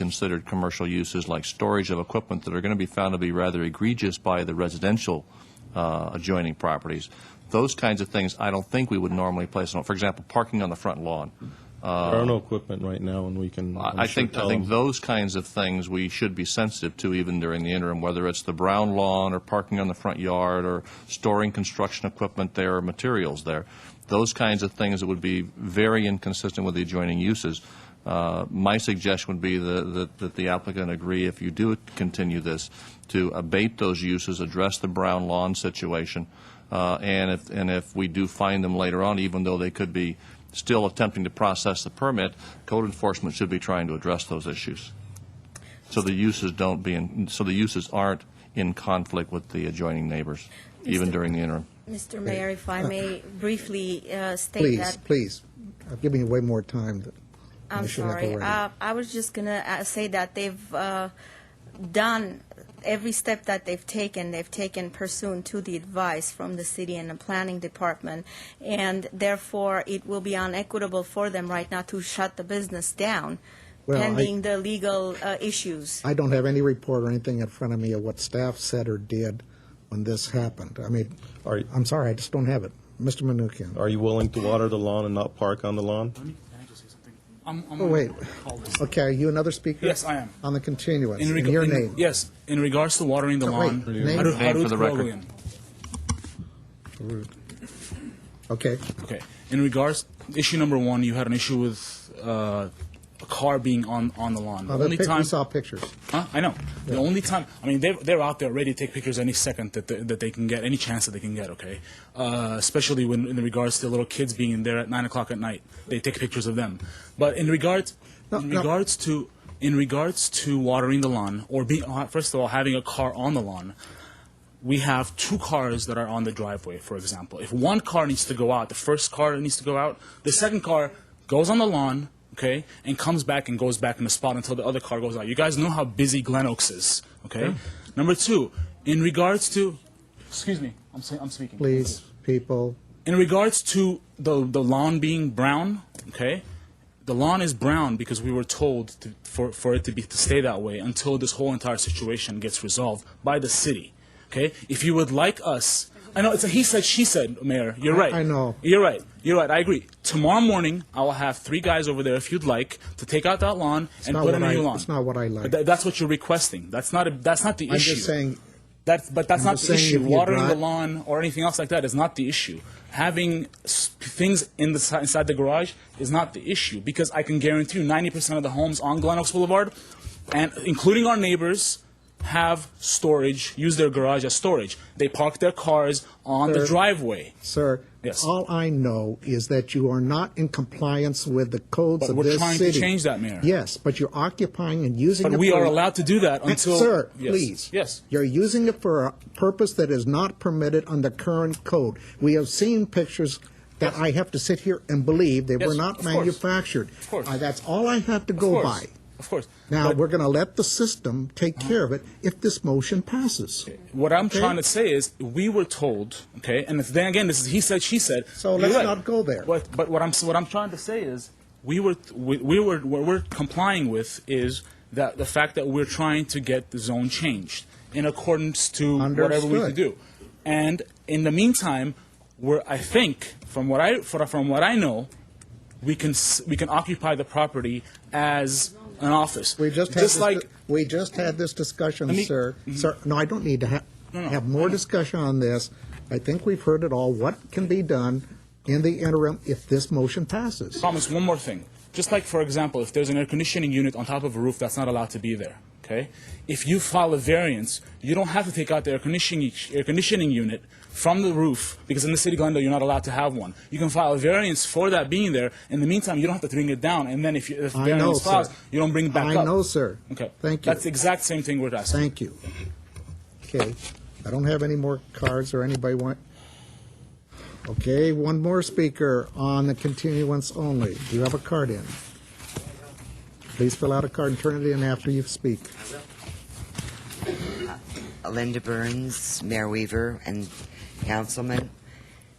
considered commercial uses like storage of equipment that are going to be found to be rather egregious by the residential uh, adjoining properties. Those kinds of things, I don't think we would normally place on, for example, parking on the front lawn. There are no equipment right now, and we can. I'm Uh, I I sure, think, I tell think them. those kinds of things we should be sensitive to even during the interim, whether it's the brown lawn or parking on the front yard or storing construction equipment there or materials there. Those kinds of things that would be very inconsistent with the adjoining uses. Uh, My suggestion would be the- that that the applicant agree, if you do continue this, to abate those uses, address the brown lawn situation, uh, and if, and if we do find them later on, even though they could be still attempting to process the permit, code enforcement should be trying to address those issues. So the uses don't be, in so the uses aren't in conflict with the adjoining neighbors, even during the interim. Mr. Mayor, if I may briefly uh, state Uh, Please, that. please, I've given you way more time than I'm you should have sorry. already. Uh, I was just gonna uh, say that they've uh, done every step that they've taken. They've taken pursuant to the advice from the city and the planning department, and therefore it will be unequitable for them right now to shut the business down, Well, I- pending the legal uh, issues. I don't have any report or anything in front of me of what staff said or did when this happened. I mean, Are, I'm sorry, I just don't have it. Mr. Menuchyan. are you willing to water the lawn and not park on the lawn? Let me, can I just say something? I'm, I'm Oh, gonna wait. call this. Okay, are you another speaker? Yes, I am. On the continuance, In in reg- your in- name. Yes, in regards to watering the Oh, wait, lawn. name? Harut- Name for the Harut record. Rogoyan. Okay, Okay. In regards, issue number one, you had an issue with uh, a car being on, on the lawn. Well, the The only pic- time, we saw pictures. Huh? I know. The only time, I mean, they're, they're out there ready to take pictures any second that they, that they can get, any chance that they can get, okay? Uh, especially when in regards to the little kids being in there at 9 o'clock at night. They take pictures of them. But in regards, No, in no. regards to. In regards to watering the lawn, or being, uh, first of all, having a car on the lawn, we have two cars that are on the driveway, for example. If one car needs to go out, the first car needs to go out, the second car goes on the lawn, okay, and comes back and goes back in the spot until the other car goes out. You guys know how busy Glen Oaks is, okay? Number two, in regards to, excuse me, I'm, say, I'm speaking. please, people, In regards to the, the lawn being brown, okay, the lawn is brown because we were told to, for, for it to be to stay that way until this whole entire situation gets resolved by the city. Okay, if you would like us, I know it's a he said she said, Mayor. You're I- right. I know. You're right. You're right. I agree. Tomorrow morning, I will have three guys over there if you'd like to take out that lawn and not what put in a I- new lawn. it's not what I like. But tha- that's what you're requesting. That's not. A, that's not the I'm issue. just saying, That's, but that's I'm not just the saying issue. if you Watering the drive- lawn or anything else like that is not the issue. Having s- things in the, si- inside the garage is not the issue because I can guarantee you 90% of the homes on Glen Oaks Boulevard, and including our neighbors, have storage, use their garage as storage. They park their cars on Sir. the driveway. sir, Yes. all I know is that you are not in compliance with the codes But of we're this city. trying to change that, Mayor. Yes, but you're occupying and using But it we for- are allowed to do that until. Sir, Yes. please. Yes. You're using it for a purpose that is not permitted under current code. We have seen pictures that I have to sit here and believe they Yes, were not of course. manufactured. Of course. Uh, That's all I have to Of go course. by. Of course. Now, But- we're going to let the system take care of it if this motion passes. What I'm Okay? trying to say is, we were told, okay, and if, then again, this is he said, she said. So You're let's right. not go there. But, but what I'm what I'm trying to say is, we were we, we were what we're complying with is that the fact that we're trying to get the zone changed in accordance to whatever we Understood. can do, and in the meantime, we're I think from what I from from what I know, we can s- we can occupy the property as an office. We just had just this, like we just had this discussion, Let me- sir. Mm-hmm. Sir, no, I don't need to ha- no, Mm-hmm. have more discussion on this. I think we've heard it all. What can be done in the interim if this motion passes? promise one more thing. Just like, for example, if there's an air conditioning unit on top of a roof, that's not allowed to be there. Okay? If you file a variance, you don't have to take out the air conditioning, air conditioning unit from the roof because in the city of Glendale, you're not allowed to have one. You can file a variance for that being there. In the meantime, you don't have to bring it down. And then if, you, if I variance know, sir. files, you don't bring it back I up. know, sir. Okay. Thank you. That's the exact same thing we're asking. Thank you. Okay, I don't have any more cards or anybody want. Okay, one more speaker on the continuance only. Do you have a card in? Please fill out a card and turn it in after you speak. Linda Burns, Mayor Weaver, and councilmen,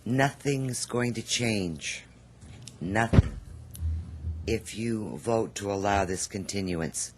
nothing's going to change. Nothing. If you vote to allow this continuance.